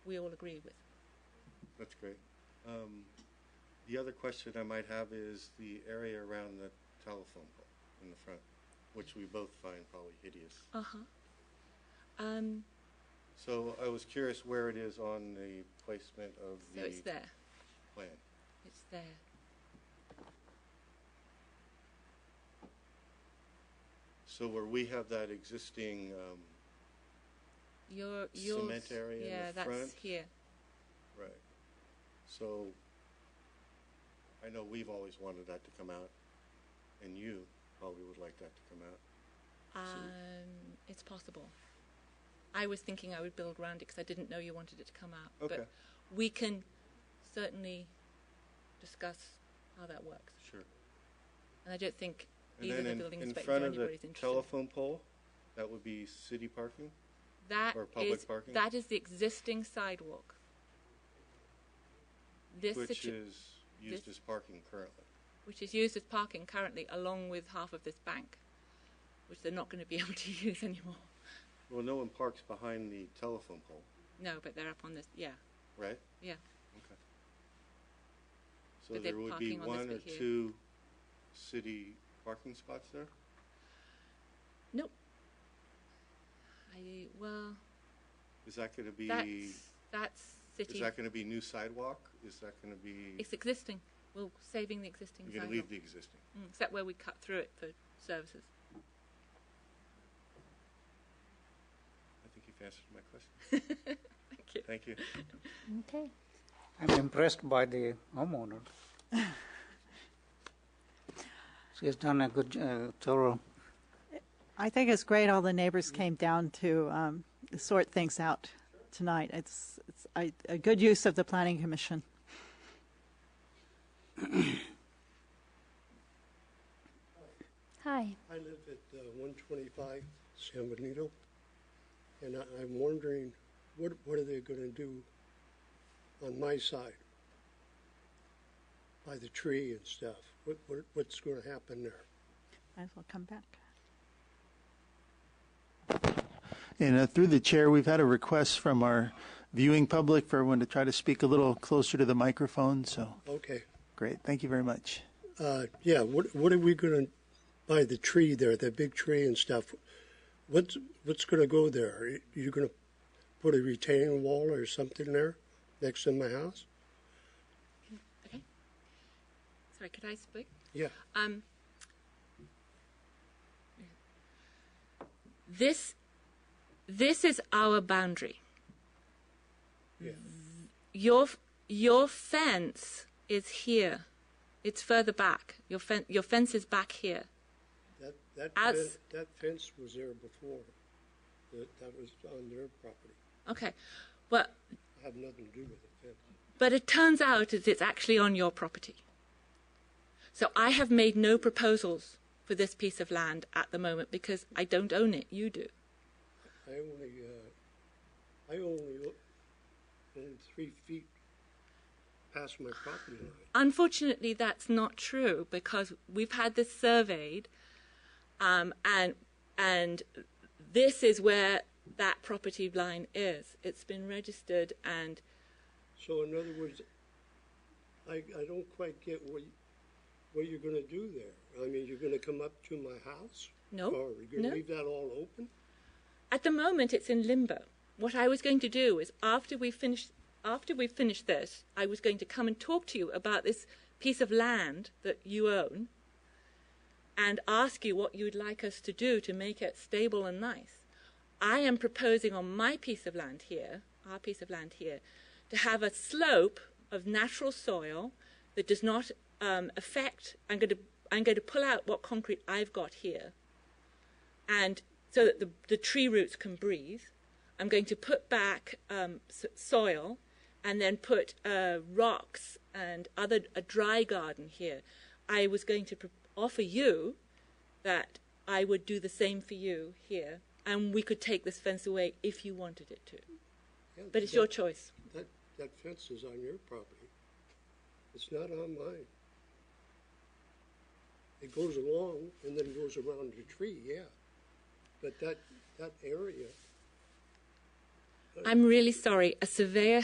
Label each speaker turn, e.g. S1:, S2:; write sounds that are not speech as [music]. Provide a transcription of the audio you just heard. S1: we all agree with.
S2: That's great. Um, the other question I might have is the area around the telephone pole in the front, which we both find probably hideous.
S1: Uh-huh. Um,
S2: So I was curious where it is on the placement of
S1: so it's
S2: the
S1: there,
S2: plan.
S1: it's there.
S2: So where we have that existing, um,
S1: Your, yours,
S2: Cement area in
S1: yeah,
S2: the
S1: that's
S2: front.
S1: here.
S2: right. So I know we've always wanted that to come out, and you probably would like that to come out.
S1: Um, it's possible. I was thinking I would build round it because I didn't know you wanted it to come out.
S2: Okay.
S1: But we can certainly discuss how that works.
S2: Sure.
S1: And I don't think
S2: And
S1: either
S2: then
S1: the
S2: in,
S1: building
S2: in
S1: inspector or
S2: front of the
S1: anybody's interested.
S2: telephone pole, that would be city parking?
S1: That
S2: Or public
S1: is-
S2: parking?
S1: That is the existing sidewalk. This
S2: Which
S1: situ-
S2: is used
S1: this-
S2: as parking currently.
S1: which is used as parking currently, along with half of this bank, which they're not going to be [laughs] able to use anymore.
S2: Well, no one parks behind the telephone pole,
S1: No, but they're up on this. Yeah,
S2: right?
S1: yeah.
S2: Okay. So
S1: But they're
S2: there would be
S1: parking on this
S2: one or
S1: bit here.
S2: two city parking spots there?
S1: Nope. I well,
S2: Is that gonna be,
S1: that's that's
S2: is
S1: city.
S2: that gonna be new sidewalk? Is that gonna be,
S1: It's existing. We're saving the existing
S2: you're gonna
S1: sidewalk,
S2: leave the existing?
S1: Mm, except where we cut through it for services.
S2: I think you've answered my question.
S1: [laughs] Thank you.
S2: Thank you.
S3: Okay.
S4: I'm impressed by the homeowner. She's done a good, j- uh, thorough.
S3: I think it's great all the neighbors came down to um, sort things out tonight. It's, it's a, a good use of the Planning Commission.
S5: Hi.
S6: I live at uh, 125 San Benito, and I- I'm wondering, what what are they going to do on my side? By the tree and stuff? What what- What's going to happen there?
S3: Might as well come back.
S7: And uh, through the chair, we've had a request from our viewing public for everyone to try to speak a little closer to the microphone. So
S6: Okay,
S7: great. Thank you very much.
S6: uh, yeah, what what are we going to, by the tree there, that big tree and stuff, what's what's going to go there? You're going to put a retaining wall or something there next to my house?
S1: Okay. Sorry, could I speak?
S6: Yeah,
S1: Um, this this is our boundary.
S6: Yeah.
S1: Your your fence is here. It's further back. Your fen- your fence is back here.
S6: That, that,
S1: As-
S6: fen- that fence was there before. That, that was on their property.
S1: Okay. Well,
S6: I have nothing to do with the fence.
S1: but it turns out is it's actually on your property. So I have made no proposals for this piece of land at the moment because I don't own it. You do.
S6: I only, uh, I only o- own three feet past my property line.
S1: Unfortunately, that's not true because we've had this surveyed, um, and and this is where that property line is. It's been registered, and
S6: So in other words, I, I don't quite get what, you- what you're gonna do there. I mean, you're gonna come up to my house?
S1: No,
S6: Or you're
S1: no.
S6: gonna leave that all open?
S1: at the moment, it's in limbo. What I was going to do is after we finish after we finish this, I was going to come and talk to you about this piece of land that you own, and ask you what you'd like us to do to make it stable and nice. I am proposing on my piece of land here, our piece of land here, to have a slope of natural soil that does not um, affect. I'm going to I'm going to pull out what concrete I've got here, and so that the the tree roots can breathe. I'm going to put back um, s- soil, and then put uh, rocks and other a dry garden here. I was going to pr- offer you that I would do the same for you here, and we could take this fence away if you wanted it to.
S6: Yeah,
S1: But it's
S6: that-
S1: your choice.
S6: That, that fence is on your property. It's not on mine. It goes along and then goes around the tree, yeah. But that, that area
S1: I'm really sorry. A surveyor